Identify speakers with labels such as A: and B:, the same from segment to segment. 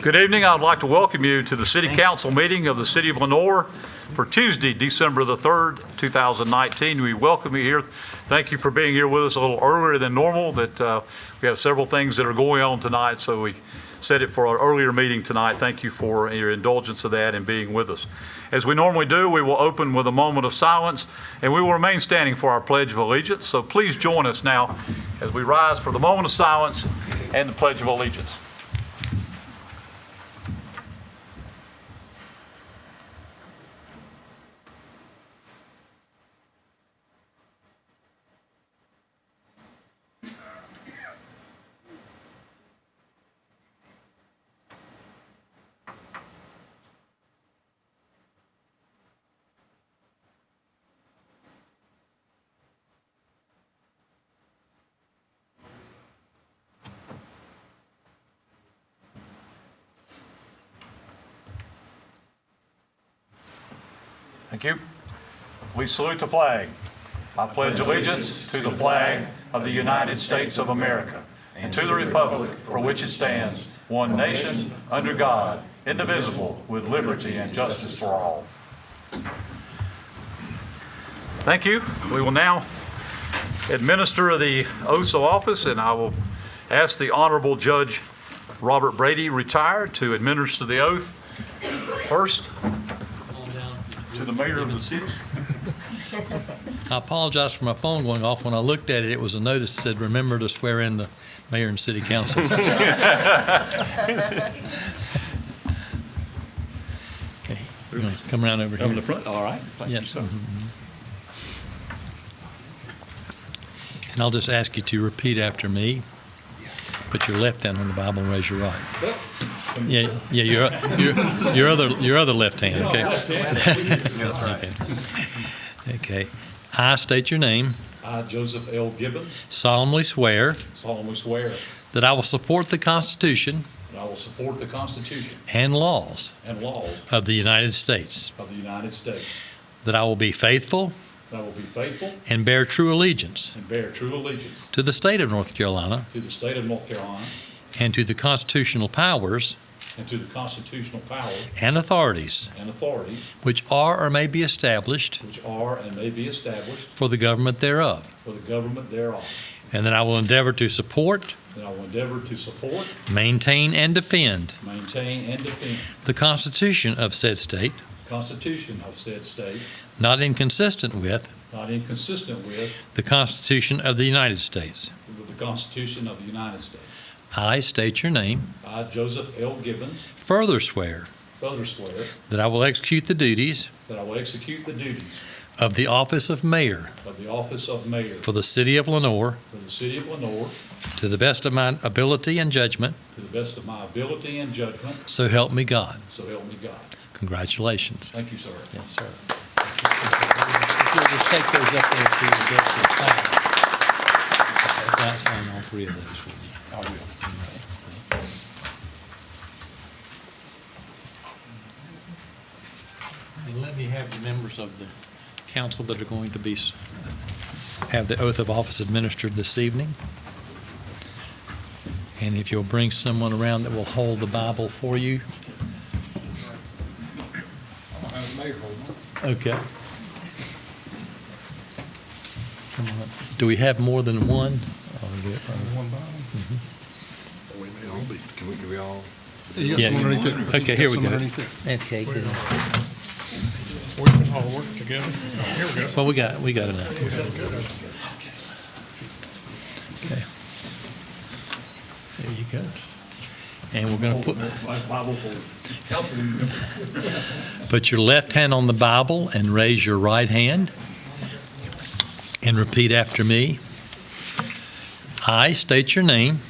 A: Good evening. I'd like to welcome you to the City Council meeting of the City of Lenore for Tuesday, December the 3rd, 2019. We welcome you here. Thank you for being here with us a little earlier than normal, that uh, we have several things that are going on tonight, so we set it for our earlier meeting tonight. Thank you for your indulgence of that and being with us. As we normally do, we will open with a moment of silence, and we will remain standing for our Pledge of Allegiance. So please join us now as we rise for the moment of silence and the Pledge of Allegiance. Thank you. We salute the flag. I pledge allegiance to the flag of the United States of America and to the republic for which it stands, one nation, under God, indivisible, with liberty and justice for all. Thank you. We will now administer the oaths of office, and I will ask the Honorable Judge Robert Brady, retired, to administer the oath first to the mayor of the city.
B: I apologize for my phone going off. When I looked at it, it was a notice that said, remember to swear in the mayor and city council. Okay, you wanna Come around over
A: Over the
B: here.
A: front, all right. Thank you,
B: Yes.
A: sir.
B: mhm, mhm. And I'll just ask you to repeat after me. Put your left hand on the Bible and raise your right. Yeah, yeah, your, your, your other, your other left hand, okay? Okay. Okay. I state your name,
A: I, Joseph L. Gibbons,
B: solemnly swear
A: solemnly swear
B: that I will support the Constitution
A: that I will support the Constitution
B: and laws
A: and laws
B: of the United States,
A: of the United States,
B: that I will be faithful
A: that I will be faithful
B: and bear true allegiance
A: and bear true allegiance
B: to the state of North Carolina
A: to the state of North Carolina
B: and to the constitutional powers
A: and to the constitutional powers
B: and authorities
A: and authorities
B: which are or may be established
A: which are and may be established
B: for the government thereof,
A: for the government thereof,
B: and that I will endeavor to support,
A: that I will endeavor to support,
B: maintain, and defend
A: maintain, and defend
B: the Constitution of said state,
A: the Constitution of said state,
B: not inconsistent with
A: not inconsistent with
B: the Constitution of the United States.
A: with the Constitution of the United States.
B: I state your name,
A: I, Joseph L. Gibbons,
B: further swear
A: further swear
B: that I will execute the duties
A: that I will execute the duties
B: of the office of mayor
A: of the office of mayor
B: for the city of Lenore
A: for the city of Lenore
B: to the best of my ability and judgment,
A: to the best of my ability and judgment,
B: so help me God.
A: so help me God.
B: Congratulations.
A: Thank you, sir.
B: Yes, sir.
C: If you'll just take those up there to the desk and sign. Sign- sign all three of those for me. I will.
B: And let me have the members of the council that are going to be, s- have the oath of office administered this evening. And if you'll bring someone around that will hold the Bible for you. Okay. Come on up. Do we have more than one? Oh, we do.
D: One bottom? We may all be, can we, can we all?
B: Yeah. some underneath
D: there.
B: Okay, here we go. Okay, good.
D: We can all work together. Here we go.
B: Well, we got, we got enough here. Okay. There you go. And we're going to put,
A: Bible for councilman.
B: put your left hand on the Bible and raise your right hand and repeat after me. I state your name,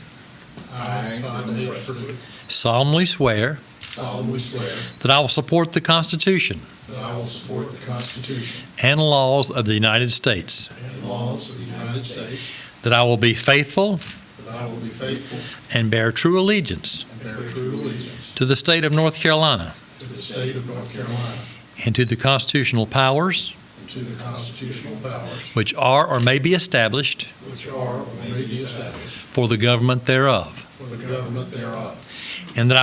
D: I, Todd H. Pruitt,
B: solemnly swear
D: solemnly swear
B: that I will support the Constitution
D: that I will support the Constitution
B: and laws of the United States,
D: and laws of the United States,
B: that I will be faithful
D: that I will be faithful
B: and bear true allegiance
D: and bear true allegiance
B: to the state of North Carolina
D: to the state of North Carolina
B: and to the constitutional powers
D: and to the constitutional powers
B: which are or may be established
D: which are or may be established
B: for the government thereof,
D: for the government thereof,
B: and that I